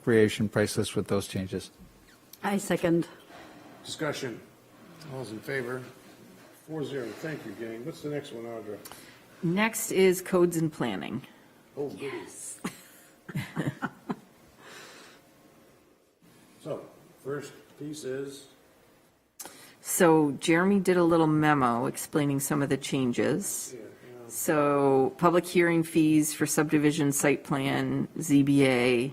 recreation price list with those changes. I second. Discussion. All's in favor? Four zero. Thank you, gang. What's the next one, Audra? Next is codes and planning. Oh, goody. So, first piece is, So Jeremy did a little memo explaining some of the changes. So public hearing fees for subdivision site plan, ZBA.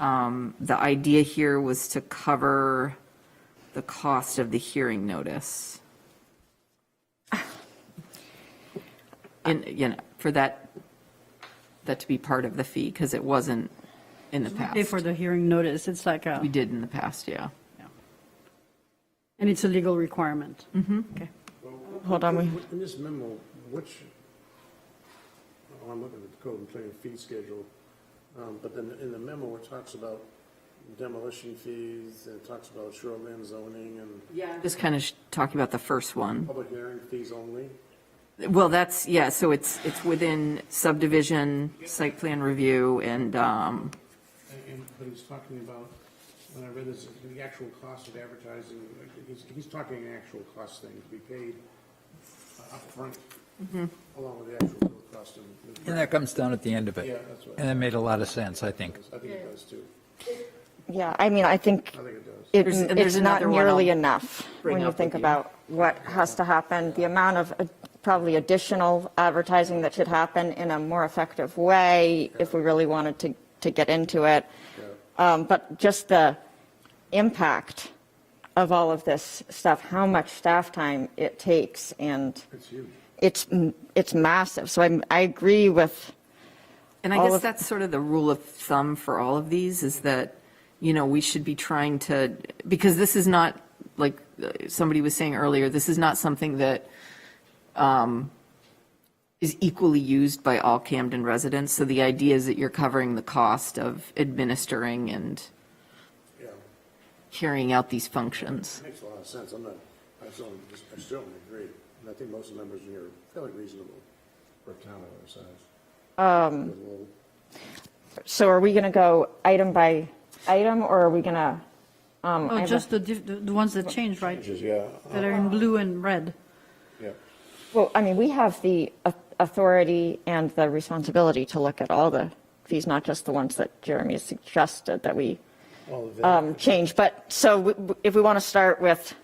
Um, The idea here was to cover the cost of the hearing notice. And, you know, for that, that to be part of the fee, because it wasn't in the Pay for past. the hearing notice, it's like a, We did in the past, yeah. and it's a legal requirement. Mm-hmm. Hold on, we, in this memo, which, oh, I'm looking at the code and plan fee schedule, um, but then in the memo, it talks about demolition fees, and it talks about shoreline zoning and Yeah. Just kind of talking about the first one. public hearing fees only. Well, that's, yeah, so it's, it's within subdivision, site plan review, and, um, And- And, but he's talking about, when I read this, the actual cost of advertising, like, he's, he's talking an actual cost thing to be paid uh, upfront, along with the actual cost of. And that comes down at the end of it. Yeah, that's right. And that made a lot of sense, I think. I think it does too. yeah, I mean, I think I think it does. it- There's- and it's there's not another one I'll nearly enough bring when you up think with you. about what has to happen, the amount of uh, probably additional advertising that should happen in a more effective way if we really wanted to, to get into it. Um, But just the impact of all of this stuff, how much staff time it takes and It's huge. it's, m- it's massive. So I'm, I agree with, and I All guess of- that's sort of the rule of thumb for all of these, is that, you know, we should be trying to, because this is not, like uh, somebody was saying earlier, this is not something that um, is equally used by all Camden residents, so the idea is that you're covering the cost of administering and Yeah, carrying out these functions. makes a lot of sense. I'm not, I still, I still don't agree. And I think most of the numbers in here are fairly reasonable for a town of our size. Um. so are we going to go item by item or are we going to? I Oh, have just the, diff- the the ones that change, right? Yeah, That are in blue and red. yeah. Well, I mean, we have the au- authority and the responsibility to look at all the fees, not just the ones that Jeremy suggested that we All of um, change. But so w- w- if we want to start with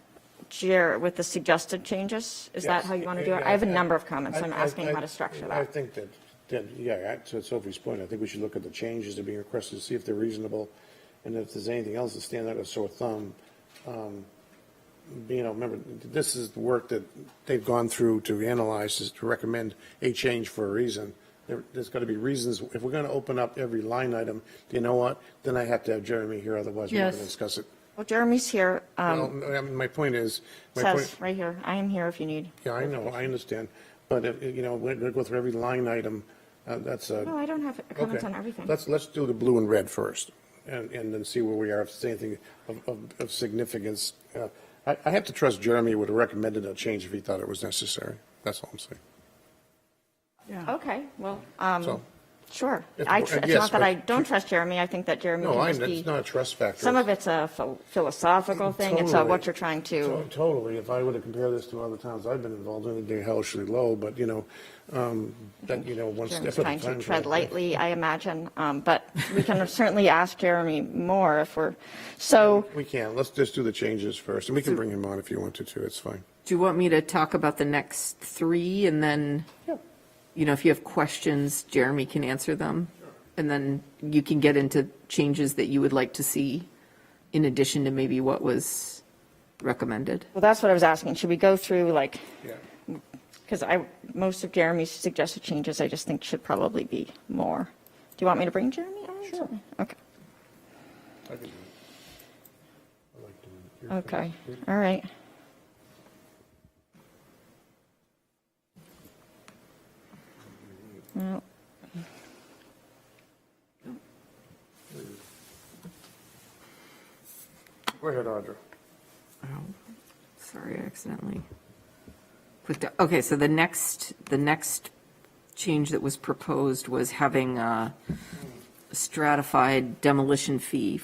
Jer, with the suggested changes, is that Yes. how you want to do it? Yeah, I have a number of comments. I- I'm I- asking I- how to structure I that. think that, that, yeah, I- to Sophie's point, I think we should look at the changes that are being requested, to see if they're reasonable, and if there's anything else that stands out as sore thumb. um, You know, remember, this is the work that they've gone through to analyze, is to recommend a change for a reason. There, there's got to be reasons. If we're going to open up every line item, you know what? Then I have to have Jeremy here, otherwise we're not Yes. going to discuss it. Well, Jeremy's here, um, Well, I mean, my point is, my point. says, right here, I am here if you need. Yeah, I know, I understand, but if, you know, we're gonna go through every line item, uh, that's a. No, I don't have comments Okay. on everything. Let's, let's do the blue and red first, and, and then see where we are, if there's anything of, of, of significance. Uh, I, I have to trust Jeremy would have recommended a change if he thought it was necessary, that's all I'm saying, Okay, well, um, so. sure. It's- I, tr- it's yes, not that but- I don't trust Jeremy. I think that Jeremy No, can I, just be. it's not a trust factor. Some of it's a ph- philosophical thing, it's uh, what Totally. you're trying To- to, Totally, if I were to compare this to other towns I've been involved in, it'd be hellishly low, but, you know, um, that, you know, one step at Jeremy's a time. trying to tread lightly, I imagine, um, but we can certainly ask Jeremy more if we're, so, We can, let's just do the changes first, and we can bring him on if you wanted to, it's fine. Do you want me to talk about the next three and then, you know, if you have questions, Jeremy can answer them? And then you can get into changes that you would like to see in addition to maybe what was recommended? well, that's what I was asking, should we go through like, Yeah. because I, most of Jeremy's suggested changes, I just think should probably be more. Do you want me to bring Jeremy on? Sure. Okay, I can do it. I like doing it. You're okay, fine. all right. Well, Go ahead, Audra. Oh, Sorry, I accidentally clicked, o- okay, so the next, the next change that was proposed was having uh, stratified demolition fee